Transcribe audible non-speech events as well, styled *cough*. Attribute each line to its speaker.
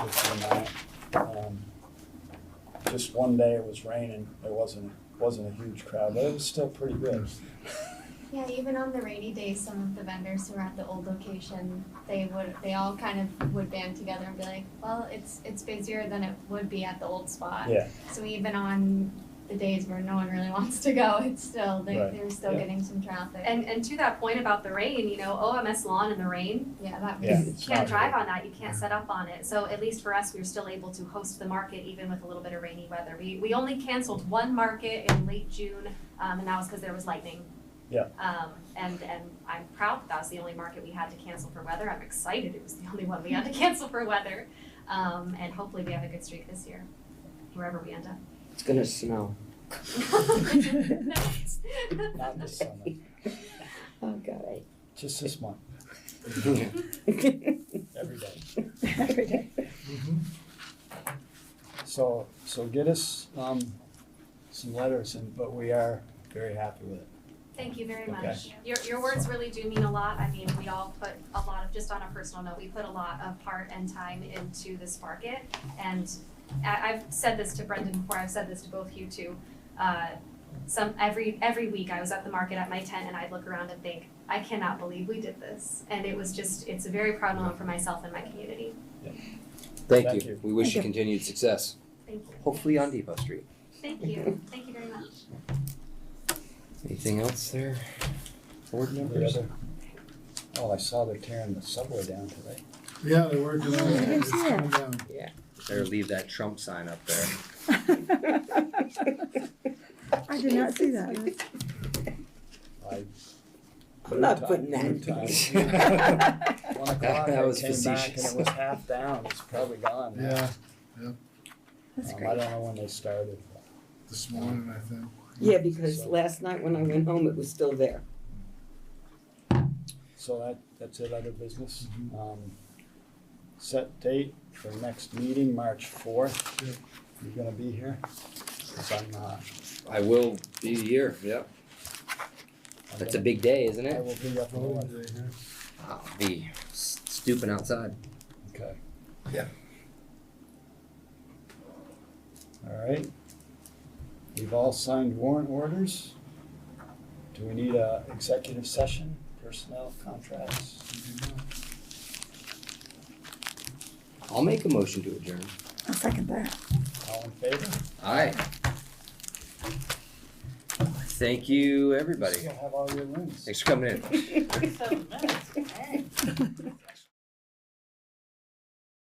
Speaker 1: this one night. Um, Just one day it was raining, it wasn't, wasn't a huge crowd, but it was still pretty good.
Speaker 2: Yeah, even on the rainy days, some of the vendors who were at the old location, they would, they all kind of would band together and be like, well, it's, it's busier than it would be at the old spot.
Speaker 1: Yeah.
Speaker 2: So even on the days where no one really *laughs* wants to go, it's still, they,
Speaker 1: Right.
Speaker 2: they're still
Speaker 1: Yeah.
Speaker 2: getting some traffic.
Speaker 3: And and to that point about the rain, you know, OMS lawn in the rain,
Speaker 2: Yeah, that
Speaker 1: Yeah,
Speaker 2: was,
Speaker 3: you
Speaker 1: it's
Speaker 3: can't
Speaker 1: not
Speaker 3: drive on that, you can't set up on it. So at least for us, we were still able to host the market even with a little bit of rainy weather. We we only canceled one market in late June, um, and that was because there was lightning.
Speaker 1: Yeah.
Speaker 3: Um, and and I'm proud that that was the only market we had to cancel for weather. I'm excited it was the only one we
Speaker 1: *laughs*
Speaker 3: had to cancel for weather. Um, and hopefully we have a good streak this year, wherever we end
Speaker 1: *laughs*
Speaker 3: up. *laughs*
Speaker 4: It's gonna snow.
Speaker 3: No, it's-
Speaker 1: Not this summer,
Speaker 4: Oh, *laughs* God.
Speaker 1: just this month, every day. So, so get us, um, some letters and, but we are very happy with it.
Speaker 3: Thank you
Speaker 1: Okay.
Speaker 3: very much. Your, your words really do mean a lot. I mean, we all put a lot of, just on a personal note, we put a lot of heart and time into this market. And I, I've said this to Brendan before, I've said this to both you two. Uh, some, every, every week I was at the market at my tent and I'd look around and think, I cannot believe we did this. And it was just, it's a very proud moment for myself and my community.
Speaker 1: Thank
Speaker 5: Thank
Speaker 1: you.
Speaker 5: you. We wish
Speaker 4: Thank
Speaker 5: you
Speaker 4: you.
Speaker 5: continued success,
Speaker 3: Thank you.
Speaker 5: hopefully on Depot Street.
Speaker 3: Thank you. Thank you very much.
Speaker 5: Anything else there? Board
Speaker 1: The
Speaker 5: members?
Speaker 1: other- Oh, I saw they're tearing the subway down today.
Speaker 6: Yeah, they're working on
Speaker 4: I
Speaker 6: it.
Speaker 4: didn't
Speaker 6: It's
Speaker 4: see that.
Speaker 6: coming down.
Speaker 5: Better leave that Trump sign up there.
Speaker 4: I did not see that.
Speaker 1: I-
Speaker 4: I'm not putting that.
Speaker 1: Noon time. One o'clock,
Speaker 5: *laughs* That
Speaker 1: I
Speaker 5: was
Speaker 1: came back and
Speaker 5: facetious.
Speaker 1: it was half down, it's probably gone. now.
Speaker 6: Yeah,
Speaker 4: That's
Speaker 1: Um, I
Speaker 4: great.
Speaker 1: don't know when they started.
Speaker 6: this morning, I think.
Speaker 4: *laughs* Yeah, because last night when I went home, it was still there.
Speaker 1: So that, that's it, other business.
Speaker 6: Mm-hmm.
Speaker 1: Um, Set date for next meeting, March fourth.
Speaker 6: Yep.
Speaker 1: You're gonna be here? 'Cause I'm not.
Speaker 5: *laughs* I will be here, yep.
Speaker 1: I'm
Speaker 5: That's a
Speaker 1: gonna-
Speaker 5: big day, isn't
Speaker 1: I
Speaker 5: it?
Speaker 1: will be up north.
Speaker 6: Probably, yeah.
Speaker 5: I'll be s- stooping outside.
Speaker 1: Okay.
Speaker 6: Yeah.
Speaker 1: All right. We've all signed warrant orders. Do we need a executive session, personnel contracts?
Speaker 5: I'll make a motion to adjourn.
Speaker 4: I'll second that.
Speaker 1: All in favor?
Speaker 5: Alright. Thank you, everybody.
Speaker 1: Still have all your rooms.
Speaker 5: Thanks for coming in.